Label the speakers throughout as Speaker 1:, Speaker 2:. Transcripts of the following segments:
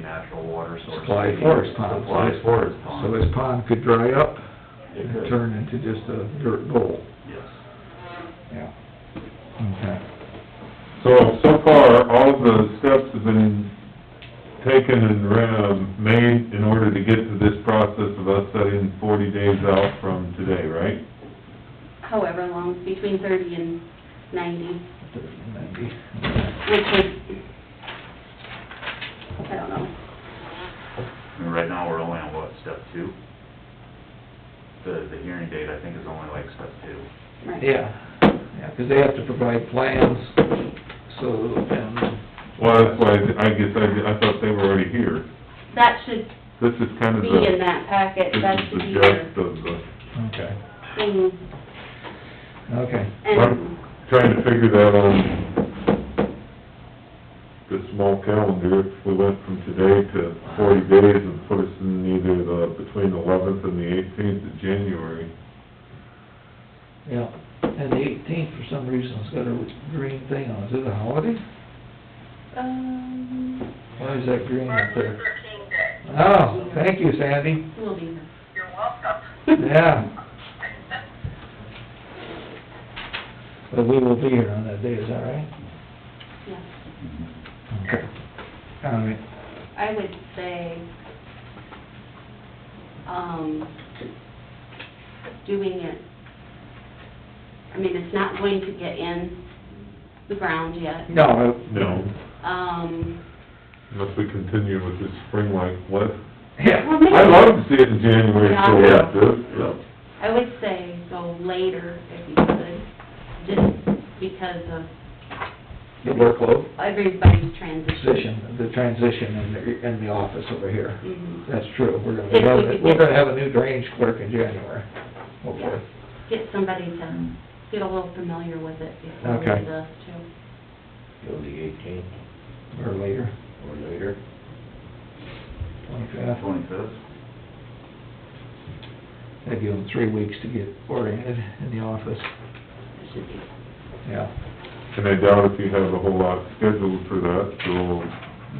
Speaker 1: natural water source.
Speaker 2: Supply forest ponds.
Speaker 1: Supply forest ponds.
Speaker 2: So his pond could dry up
Speaker 1: It
Speaker 2: and
Speaker 1: could.
Speaker 2: turn into just a dirt bowl.
Speaker 1: Yes.
Speaker 2: Yeah. Okay.
Speaker 3: So, so far, all the steps have been taken and, um, made in order to get to this process of us setting forty days out from today, right?
Speaker 4: however long, between thirty and ninety,
Speaker 2: Thirty, ninety.
Speaker 4: which would, I don't know,
Speaker 1: And right now, we're only on what, step two? The, the hearing date, I think, is only like step two.
Speaker 4: right?
Speaker 2: Yeah, yeah, 'cause they have to provide plans, so, and...
Speaker 3: Well, that's why, I guess, I, I thought they were already here.
Speaker 4: That should
Speaker 3: This is kind of
Speaker 4: be
Speaker 3: the...
Speaker 4: in that packet,
Speaker 3: This
Speaker 4: that
Speaker 3: is
Speaker 4: should
Speaker 3: the
Speaker 4: be
Speaker 3: gist
Speaker 4: your
Speaker 3: of the,
Speaker 2: Okay,
Speaker 4: thing,
Speaker 2: okay.
Speaker 4: and,
Speaker 3: I'm trying to figure that on the small calendar, if we went from today to forty days and put us in either the, between eleventh and the eighteenth of January.
Speaker 2: Yeah, and the eighteenth, for some reason, it's got a green thing on it. Is it a holiday?
Speaker 4: um,
Speaker 2: Why is that green up
Speaker 5: Martin
Speaker 2: there?
Speaker 5: Luther King Day.
Speaker 2: Oh, thank you, Sandy.
Speaker 4: we'll be here.
Speaker 5: You're welcome.
Speaker 2: Yeah, but we will be here on that day, is that right?
Speaker 4: Yeah.
Speaker 2: Okay. All right,
Speaker 4: I would say, um, doing it, I mean, it's not going to get in the ground yet.
Speaker 2: no. I-
Speaker 3: No,
Speaker 4: Um,
Speaker 3: unless we continue with this spring like what?
Speaker 2: Yeah,
Speaker 3: I'd love to see it in January for like this.
Speaker 4: I would say go later if you could, just because of
Speaker 2: the workload,
Speaker 4: everybody's transition.
Speaker 2: position, the transition in the, in the office over here.
Speaker 4: Mhm.
Speaker 2: That's true, we're gonna
Speaker 4: If we
Speaker 2: have,
Speaker 4: could
Speaker 2: we're
Speaker 4: get-
Speaker 2: gonna have a new drainage clerk in January,
Speaker 4: Yeah.
Speaker 2: hopefully.
Speaker 4: Get somebody to get a little familiar with it before we
Speaker 2: Okay.
Speaker 4: do the, too.
Speaker 6: Go the eighteenth
Speaker 2: Or later,
Speaker 6: or later.
Speaker 2: twenty-fifth.
Speaker 1: Twenty-fifth?
Speaker 2: That'd give them three weeks to get oriented in the office,
Speaker 4: It should be.
Speaker 2: yeah.
Speaker 3: And I doubt if you have a whole lot scheduled for that, so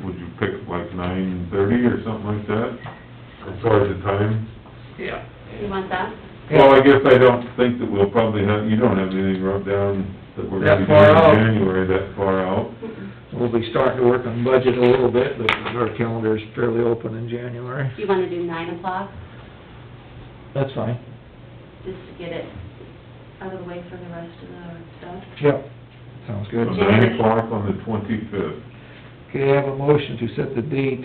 Speaker 3: would you pick like nine thirty or something like that? As far as the time?
Speaker 2: Yeah.
Speaker 4: You want that?
Speaker 3: Well, I guess I don't think that we'll probably have, you don't have anything rubbed down that we're gonna be
Speaker 2: That far out.
Speaker 3: doing in January that far out.
Speaker 4: Mm-mm.
Speaker 2: We'll be starting to work on budget a little bit, but our calendar's fairly open in January.
Speaker 4: Do you wanna do nine o'clock,
Speaker 2: That's fine.
Speaker 4: just to get it out of the way for the rest of the stuff?
Speaker 2: Yep. Sounds
Speaker 3: So
Speaker 2: good.
Speaker 3: Nine o'clock on the twenty-fifth.
Speaker 2: Okay, I have a motion to set the date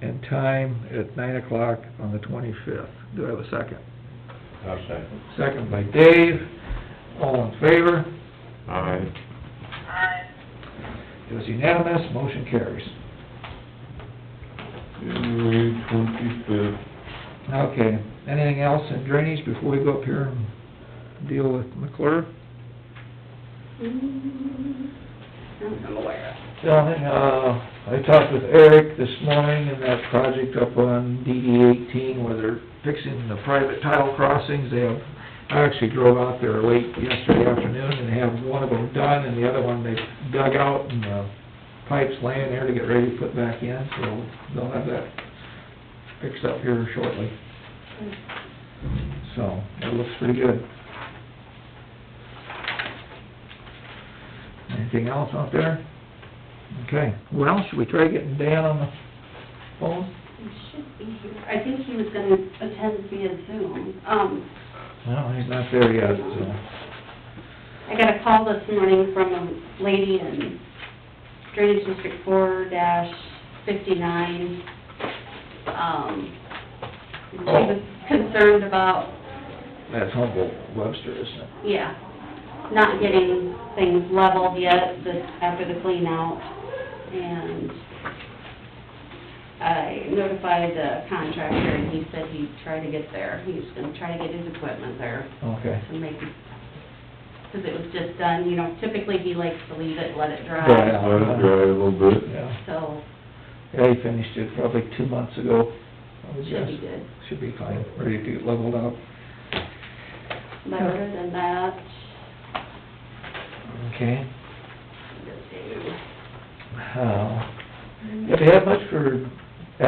Speaker 2: and time at nine o'clock on the twenty-fifth. Do I have a second?
Speaker 6: I'll second.
Speaker 2: Second by Dave. All in favor?
Speaker 3: Aye.
Speaker 5: I,
Speaker 2: It was unanimous, motion carries.
Speaker 3: January twenty-fifth.
Speaker 2: Okay, anything else in drainage before we go up here and deal with McClure?
Speaker 4: Mm, I'm aware of.
Speaker 2: John, uh, I talked with Eric this morning in that project up on DD eighteen where they're fixing the private tile crossings. They have, I actually drove out there late yesterday afternoon and they have one of them done and the other one they dug out and the pipe's laying there to get ready to put back in, so they'll have that fixed up here shortly. So, that looks pretty good. Anything else out there? Okay, well, should we try getting Dan on the phone?
Speaker 4: He should be here. I think he was gonna attend via Zoom. Um,
Speaker 2: No, he's not there yet, so.
Speaker 4: I got a call this morning from a lady in Drainage District four dash fifty-nine. Um, she was concerned about,
Speaker 2: That's Humboldt Webster, isn't it?
Speaker 4: yeah, not getting things leveled yet, this, after the clean out. And I notified the contractor and he said he'd try to get there. He's gonna try to get his equipment there.
Speaker 2: Okay.
Speaker 4: to make it, because it was just done, you know, typically he likes to leave it, let it
Speaker 2: Dry
Speaker 4: dry.
Speaker 2: out.
Speaker 3: Let it dry a little bit.
Speaker 2: Yeah,
Speaker 4: So,
Speaker 2: yeah, he finished it probably two months ago, I would
Speaker 4: should be
Speaker 2: guess.
Speaker 4: good.
Speaker 2: Should be fine, ready to get leveled out.
Speaker 4: But other than that,
Speaker 2: Okay.
Speaker 4: let's see.
Speaker 2: Mm-hmm. Uh, Have you had much for